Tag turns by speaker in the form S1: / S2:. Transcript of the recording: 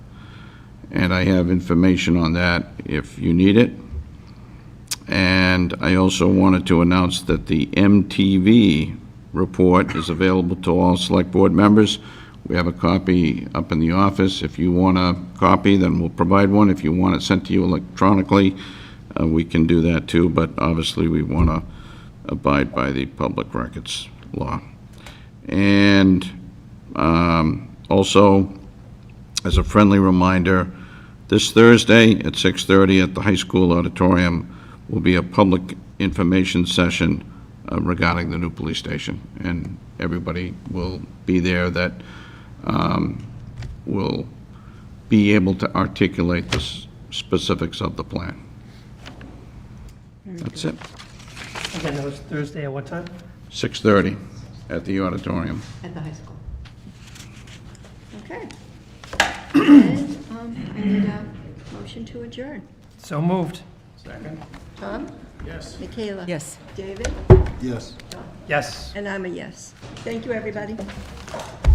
S1: and I have information on that if you need it. And I also wanted to announce that the MTV report is available to all Select Board members. We have a copy up in the office. If you want a copy, then we'll provide one. If you want it sent to you electronically, uh, we can do that too, but obviously, we want to abide by the public records law. And um, also, as a friendly reminder, this Thursday at 6:30 at the high school auditorium will be a public information session uh, regarding the new police station, and everybody will be there that um, will be able to articulate the s- specifics of the plan. That's it.
S2: Again, that was Thursday at what time?
S1: 6:30 at the auditorium.
S3: At the high school. Okay. And um, I need a motion to adjourn.
S2: So moved.
S3: Tom? Yes. Michaela?
S4: Yes.
S3: David?
S5: Yes.
S2: Yes.
S3: And I'm a yes. Thank you, everybody.